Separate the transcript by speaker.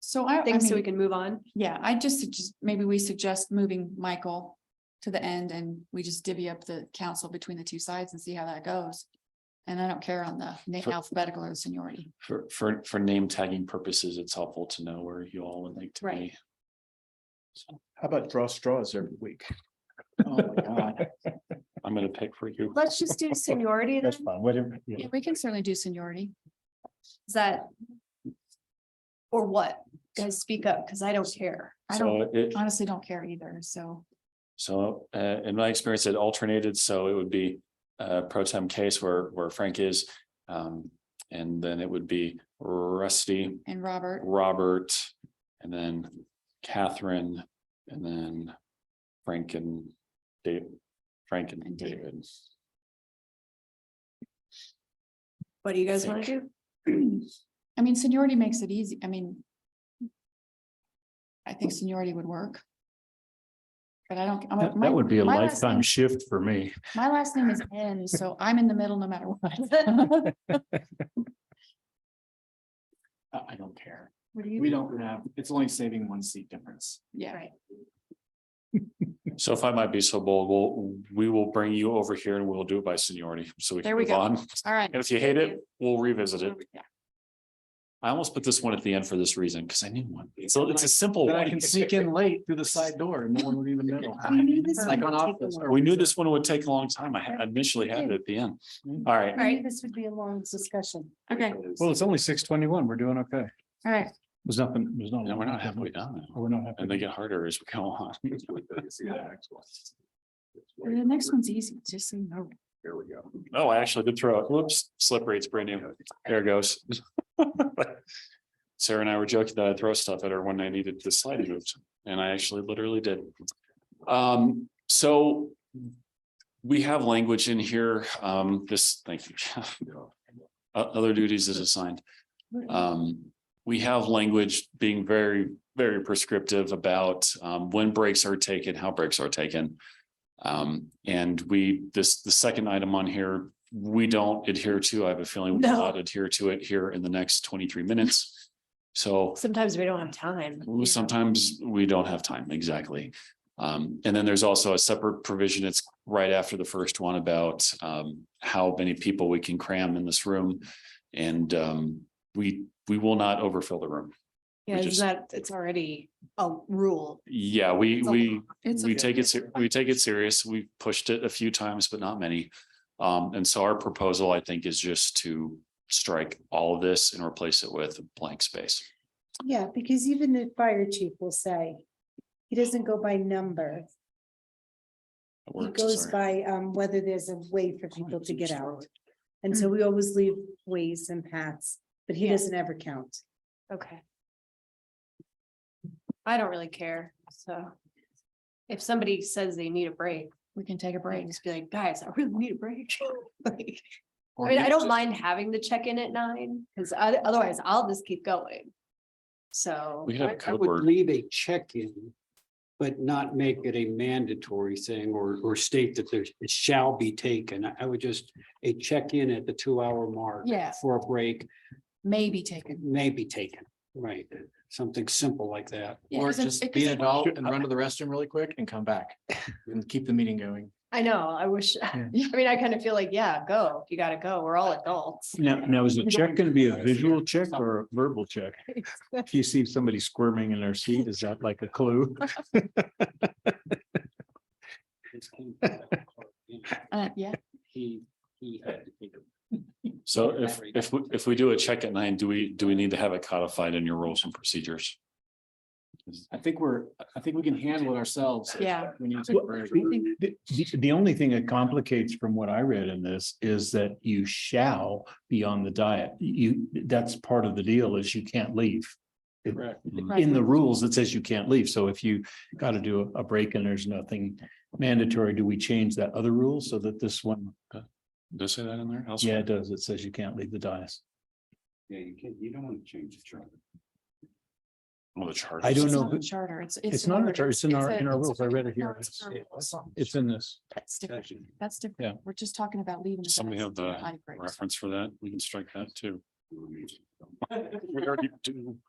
Speaker 1: So I, I
Speaker 2: things so we
Speaker 1: mean,
Speaker 2: can move on.
Speaker 1: yeah, I just suggest, maybe we suggest moving Michael to the end and we just divvy up the council between the two sides and see how that goes. And I don't care on the na-
Speaker 3: For-
Speaker 1: alphabetical or seniority.
Speaker 3: For, for, for name tagging purposes, it's helpful to know where you all would like to
Speaker 2: Right.
Speaker 3: be.
Speaker 4: How about draw straws every week?
Speaker 3: Oh my god! I'm gonna pick for you.
Speaker 2: Let's just do seniority then.
Speaker 5: That's fine, whatever. yeah.
Speaker 1: Yeah, we can certainly do seniority.
Speaker 2: Is that? Or what? Guys, speak up because I don't care.
Speaker 1: I don't
Speaker 3: So it,
Speaker 1: honestly don't care either, so.
Speaker 3: so, uh, in my experience, it alternated, so it would be, uh, pro tem case where, where Frank is. Um, and then it would be Rusty,
Speaker 1: And Robert,
Speaker 3: Robert, and then Catherine, and then Frank and Dave, Frank and
Speaker 1: And David.
Speaker 3: David.
Speaker 2: What do you guys want to do?
Speaker 1: I mean, seniority makes it easy, I mean. I think seniority would work. But I don't. I'm a-
Speaker 5: That,
Speaker 1: my-
Speaker 5: that would be a
Speaker 1: my last
Speaker 5: lifetime
Speaker 1: name-
Speaker 5: shift for me.
Speaker 1: My last name is N, so I'm in the middle no matter what.
Speaker 6: I, I don't care.
Speaker 2: What do
Speaker 6: We
Speaker 2: you?
Speaker 6: don't have, it's only saving one seat difference.
Speaker 1: Yeah,
Speaker 2: Right.
Speaker 3: So if I might be so bold, we'll, we will bring you over here and we'll do it by seniority, so we
Speaker 1: There
Speaker 3: can
Speaker 1: we
Speaker 3: move
Speaker 1: go.
Speaker 3: on.
Speaker 1: all right.
Speaker 3: And if you hate it, we'll revisit it.
Speaker 1: Yeah.
Speaker 3: I almost put this one at the end for this reason, because I knew one. So it's a
Speaker 5: Oh.
Speaker 3: simple
Speaker 6: Then I
Speaker 3: one.
Speaker 6: can sneak in late through the side door and no one would even know.
Speaker 2: We knew this
Speaker 6: Like on
Speaker 2: would take a
Speaker 6: office.
Speaker 2: while.
Speaker 6: or
Speaker 3: We knew this one would take a long time. I had- initially had it at the end.
Speaker 6: Mm-hmm.
Speaker 3: All right,
Speaker 2: Right, this would be a long discussion.
Speaker 1: Okay,
Speaker 5: Well, it's only six twenty-one. We're doing okay.
Speaker 1: all right.
Speaker 5: There's nothing, there's no.
Speaker 3: now we're not halfway done. now.
Speaker 5: Oh, We're not
Speaker 3: And they
Speaker 5: happy.
Speaker 3: get harder as we go on.
Speaker 1: The next one's easy, just so you know.
Speaker 6: Here we go.
Speaker 3: Oh, I actually did throw it. Whoops, slippery, it's brand new. There it goes. Sarah and I were joking that I'd throw stuff at her when I needed the slide moved, and I actually literally did. Um, so we have language in here, um, this, thank you. O- Other duties is assigned. Um, we have language being very, very prescriptive about, um, when breaks are taken, how breaks are taken. Um, and we, this, the second item on here, we don't adhere to, I have a feeling we will
Speaker 2: No.
Speaker 3: not adhere to it here in the next twenty-three minutes. So
Speaker 2: Sometimes we don't have time.
Speaker 3: well, Sometimes we don't have time, exactly. Um, and then there's also a separate provision. It's right after the first one about um how many people we can cram in this room. And um, we, we will not overfill the room.
Speaker 2: Yeah,
Speaker 3: we
Speaker 2: is
Speaker 3: just-
Speaker 2: that, it's already a rule.
Speaker 3: Yeah, we,
Speaker 2: It's a
Speaker 3: we,
Speaker 1: It's
Speaker 3: we
Speaker 1: okay.
Speaker 3: take it, ser- we take it serious. We pushed it a few times, but not many. Um, and so our proposal, I think, is just to strike all of this and replace it with blank space.
Speaker 7: Yeah, because even the fire chief will say, he doesn't go by number.
Speaker 3: It
Speaker 7: He
Speaker 3: works,
Speaker 7: goes
Speaker 3: sorry.
Speaker 7: by um whether there's a way for people to get out. And so we
Speaker 3: Mm.
Speaker 7: always leave ways and paths, but he
Speaker 2: Yeah.
Speaker 7: doesn't ever count.
Speaker 2: Okay. I don't really care, so. If somebody says they need a break,
Speaker 1: We can take a
Speaker 2: I
Speaker 1: break.
Speaker 2: can just be like, guys, I really need a break. Like, I mean, I don't mind having the check-in at nine, because otherwise I'll just keep going. So.
Speaker 3: We could have a
Speaker 8: I I
Speaker 3: code
Speaker 8: would
Speaker 3: word.
Speaker 8: leave a check-in, but not make it a mandatory thing or, or state that there it shall be taken. I- I would just, a check-in at the two-hour mark.
Speaker 1: Yeah.
Speaker 8: For a break
Speaker 1: Maybe taken.
Speaker 8: may be taken, right? Something simple like that.
Speaker 1: Yeah,
Speaker 6: Or
Speaker 1: 'cause it-
Speaker 6: just
Speaker 1: it- 'cause
Speaker 6: beat
Speaker 1: it-
Speaker 6: it out and run to the restroom really quick and come back and keep the meeting going.
Speaker 2: I know, I wish, I mean, I kind of feel like, yeah, go, you gotta go, we're all adults.
Speaker 5: Now, now is the check going to be a visual check
Speaker 6: Something.
Speaker 5: or a verbal check? If you see somebody squirming in their seat, is that like a clue?
Speaker 1: Uh, yeah,
Speaker 8: He, he had to take a
Speaker 3: So if, if, we- if we do a check at nine, do we, do we need to have it codified in your rules and procedures?
Speaker 6: I think we're, I think we can handle it ourselves.
Speaker 1: yeah.
Speaker 6: We need to. take a
Speaker 5: Well,
Speaker 6: break.
Speaker 5: The, the- the only thing that complicates from what I read in this is that you shall be on the diet. You, that's part of the deal is you can't leave.
Speaker 6: Correct.
Speaker 5: In the rules, it says you can't leave. So if you got to do a break and there's nothing mandatory, do we change that other rule so that this one?
Speaker 3: Does it say that in there?
Speaker 5: Yeah, it does. It says you can't leave the dais.
Speaker 8: Yeah, you can't, you don't want to change the charter.
Speaker 3: Well, the charter.
Speaker 5: I don't
Speaker 1: It's
Speaker 5: know,
Speaker 1: not a
Speaker 5: but
Speaker 1: Charter, it's.
Speaker 5: It's not in our
Speaker 1: limited.
Speaker 5: charter, it's in our,
Speaker 1: a-
Speaker 5: in our
Speaker 1: it's-
Speaker 5: rules. I read it
Speaker 1: no,
Speaker 5: here.
Speaker 1: it's in our rules.
Speaker 5: It's in this.
Speaker 1: That's different. That's different. We're just talking about leaving. the
Speaker 3: Somebody
Speaker 1: best
Speaker 3: have the
Speaker 1: eye breaks.
Speaker 3: Reference for that. We can strike that too. We already do.